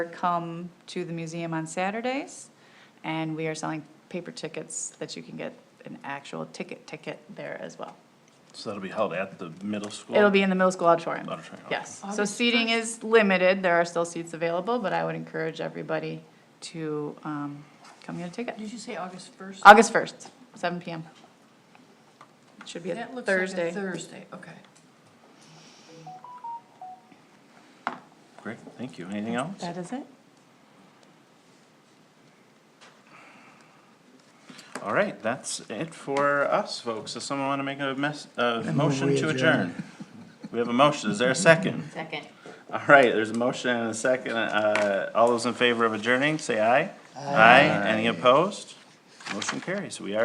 come to the museum on Saturdays, and we are selling paper tickets that you can get an actual ticket, ticket there as well. So that'll be held at the middle school? It'll be in the middle school auditorium. Auditorium, okay. Yes, so seating is limited, there are still seats available, but I would encourage everybody to um, come get a ticket. Did you say August 1st? August 1st, seven PM. It Should be a That looks like a Thursday. Thursday, okay. Great, thank you. Anything else? That is it? All right, that's it for us, folks. Does someone want to make a mess, a move motion we to adjourn. adjourn? We have a motion. Is there a second? Second. All right, there's a motion and a second. Uh, all those in favor of adjourning, say aye. Aye. Any opposed? Motion carries. We are.